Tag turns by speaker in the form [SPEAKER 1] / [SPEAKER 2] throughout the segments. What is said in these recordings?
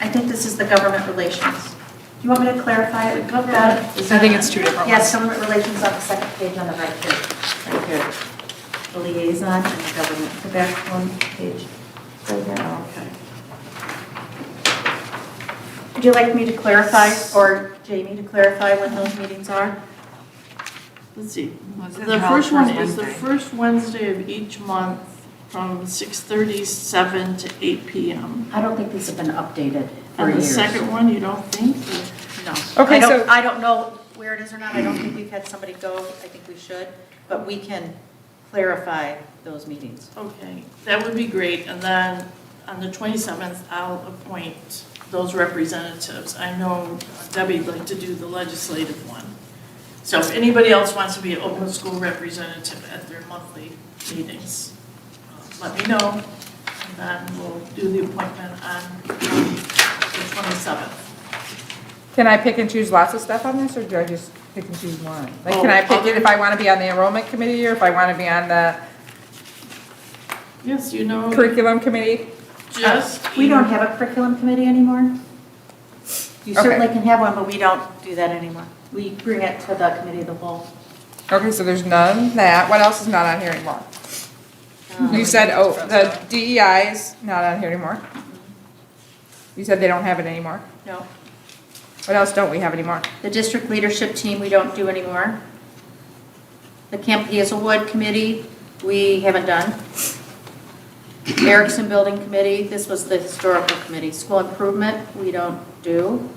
[SPEAKER 1] I think this is the government relations. Do you want me to clarify it? Look that.
[SPEAKER 2] I think it's two different ones.
[SPEAKER 1] Yes, government relations on the second page on the right here, right here. The liaison and the government, the back one page. Right there, okay. Would you like me to clarify, or Jamie to clarify when those meetings are?
[SPEAKER 3] Let's see,
[SPEAKER 2] Well, it says
[SPEAKER 3] the
[SPEAKER 2] held
[SPEAKER 3] first one is the
[SPEAKER 2] Wednesday.
[SPEAKER 3] first Wednesday of each month from 6:37 to 8 PM.
[SPEAKER 4] I don't think these have been updated for
[SPEAKER 3] And the
[SPEAKER 4] years.
[SPEAKER 3] second one, you don't think?
[SPEAKER 1] No.
[SPEAKER 5] Okay,
[SPEAKER 1] I don't-
[SPEAKER 5] so-
[SPEAKER 1] I don't know where it is or not, I don't think we've had somebody go, I think we should, but we can clarify those meetings.
[SPEAKER 3] Okay, that would be great. And then on the 27th, I'll appoint those representatives. I know Debbie'd like to do the legislative one. So if anybody else wants to be an open school representative at their monthly meetings, uh, let me know. And then we'll do the appointment on um, the 27th.
[SPEAKER 5] Can I pick and choose lots of stuff on this, or do I just pick and choose one? Like, can I
[SPEAKER 3] Oh,
[SPEAKER 5] pick it if I want to be on the enrollment committee, or if I want to be on the
[SPEAKER 3] Yes, you know, uh,
[SPEAKER 5] curriculum committee?
[SPEAKER 3] just.
[SPEAKER 1] We don't have a curriculum committee anymore. You
[SPEAKER 5] Okay.
[SPEAKER 1] certainly can have one, but we don't do that anymore. We bring it to the committee of the whole.
[SPEAKER 5] Okay, so there's none that, what else is not on here anymore? You said, oh, the DEI is not on here anymore. You said they don't have it anymore.
[SPEAKER 1] No.
[SPEAKER 5] What else don't we have anymore?
[SPEAKER 1] The district leadership team, we don't do anymore. The Camp Hazelwood Committee, we haven't done. Erickson Building Committee, this was the historical committee. School improvement, we don't do.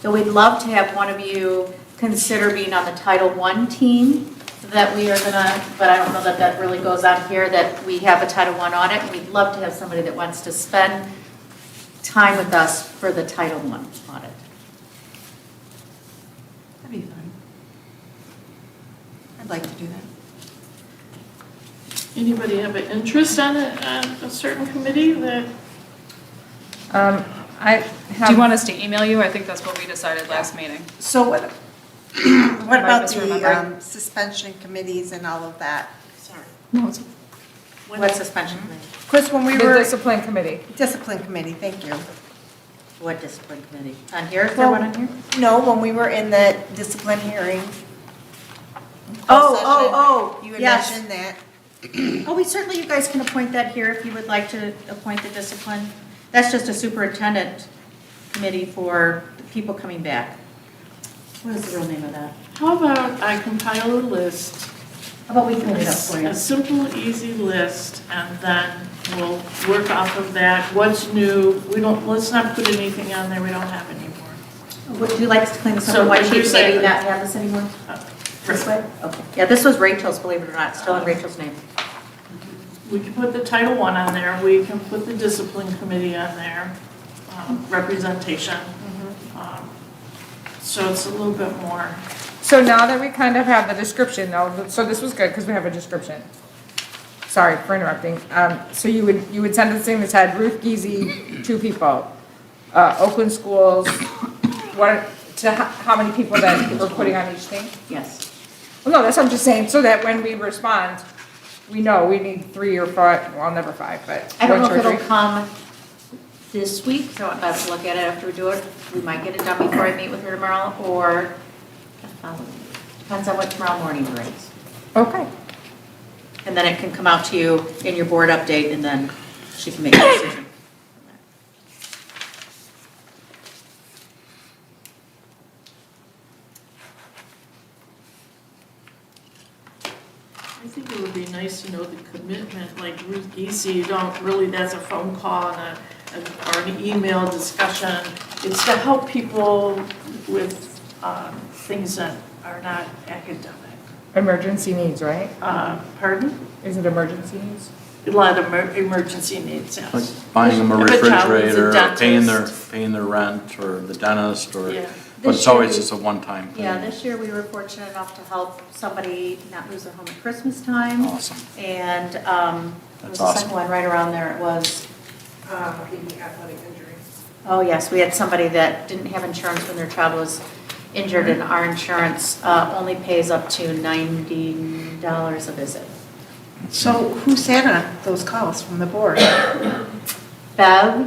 [SPEAKER 1] So we'd love to have one of you consider being on the Title I team so that we are gonna, but I don't know that that really goes on here, that we have a Title I audit. and We'd love to have somebody that wants to spend time with us for the Title I audit.
[SPEAKER 2] That'd be fun. I'd like to do that.
[SPEAKER 3] Anybody have an interest on a, on a certain committee that?
[SPEAKER 5] Um, I
[SPEAKER 2] Do you
[SPEAKER 5] have,
[SPEAKER 2] want us to email you? I think that's what we decided last meeting.
[SPEAKER 6] So what
[SPEAKER 2] Might
[SPEAKER 6] what about the
[SPEAKER 2] misremember.
[SPEAKER 6] um, suspension committees and all of that?
[SPEAKER 3] Sorry.
[SPEAKER 2] No, it's.
[SPEAKER 1] What suspension committee?
[SPEAKER 6] Chris, when we
[SPEAKER 5] the
[SPEAKER 6] were,
[SPEAKER 5] discipline committee.
[SPEAKER 6] discipline committee, thank you.
[SPEAKER 1] What discipline committee? On here, is there one on here?
[SPEAKER 6] No, when we were in the discipline hearing.
[SPEAKER 1] Oh,
[SPEAKER 6] session,
[SPEAKER 1] oh, oh,
[SPEAKER 6] You had
[SPEAKER 1] yes.
[SPEAKER 6] mentioned that.
[SPEAKER 1] Oh, we certainly, you guys can appoint that here if you would like to appoint the discipline. That's just a superintendent committee for people coming back. What is the real name of that?
[SPEAKER 3] How about I compile a list,
[SPEAKER 1] How about we clean it up for you?
[SPEAKER 3] a simple, easy list, and then we'll work off of that. What's new? We don't, let's not put anything on there we don't have anymore.
[SPEAKER 1] Would you like to clean this
[SPEAKER 3] So
[SPEAKER 1] up? Why
[SPEAKER 3] what
[SPEAKER 1] should
[SPEAKER 3] you're
[SPEAKER 1] you maybe
[SPEAKER 3] saying-
[SPEAKER 1] not have this anymore? This way? Oh. Okay. Yeah, this was Rachel's, believe it or not, still in Rachel's name.
[SPEAKER 3] We can put the Title I on there, we can put the Discipline Committee on there, um, representation. Um, So it's a little bit more.
[SPEAKER 5] So now that we kind of have the description, though, so this was good, because we have a description. Sorry for interrupting. Um, so you would, you would send this thing that said Ruth Geezy, two people, uh, Oakland Schools, what, to how, how many people that we're putting on each thing?
[SPEAKER 1] Yes.
[SPEAKER 5] Well, no, that's what I'm just saying, so that when we respond, we know we need three or five, well, never five, but
[SPEAKER 1] I don't
[SPEAKER 5] one,
[SPEAKER 1] know
[SPEAKER 5] two,
[SPEAKER 1] if
[SPEAKER 5] or
[SPEAKER 1] it'll
[SPEAKER 5] three.
[SPEAKER 1] come this week, so I'm about to look at it after we do it. We might get it done before I meet with her tomorrow, or the following week. depends on what tomorrow morning brings.
[SPEAKER 5] Okay,
[SPEAKER 1] And then it can come out to you in your board update, and then she can make a decision.
[SPEAKER 3] I think it would be nice to know the commitment, like Ruth Geesey, you don't really, that's a phone call and a, or an email discussion. It's to help people with, um, things that are not academic.
[SPEAKER 5] emergency needs, right?
[SPEAKER 3] Uh, pardon?
[SPEAKER 5] Is it emergency needs?
[SPEAKER 3] A lot of emer- emergency needs,
[SPEAKER 7] Like
[SPEAKER 3] yes.
[SPEAKER 7] buying them a
[SPEAKER 3] If a child needs a
[SPEAKER 7] refrigerator, or paying their,
[SPEAKER 3] dentist.
[SPEAKER 7] paying their rent, or the dentist, or,
[SPEAKER 3] Yeah.
[SPEAKER 7] but it's always just a one-time thing.
[SPEAKER 1] Yeah, this year we were fortunate enough to help somebody not lose their home at Christmas time.
[SPEAKER 7] Awesome.
[SPEAKER 1] And um, it was
[SPEAKER 7] That's
[SPEAKER 1] the second one
[SPEAKER 7] awesome.
[SPEAKER 1] right around there, it was. Oh, yes, we had somebody that didn't have insurance when their child was injured, and our insurance uh, only pays up to $90 a visit.
[SPEAKER 6] So who sat on those calls from the board?
[SPEAKER 1] Bev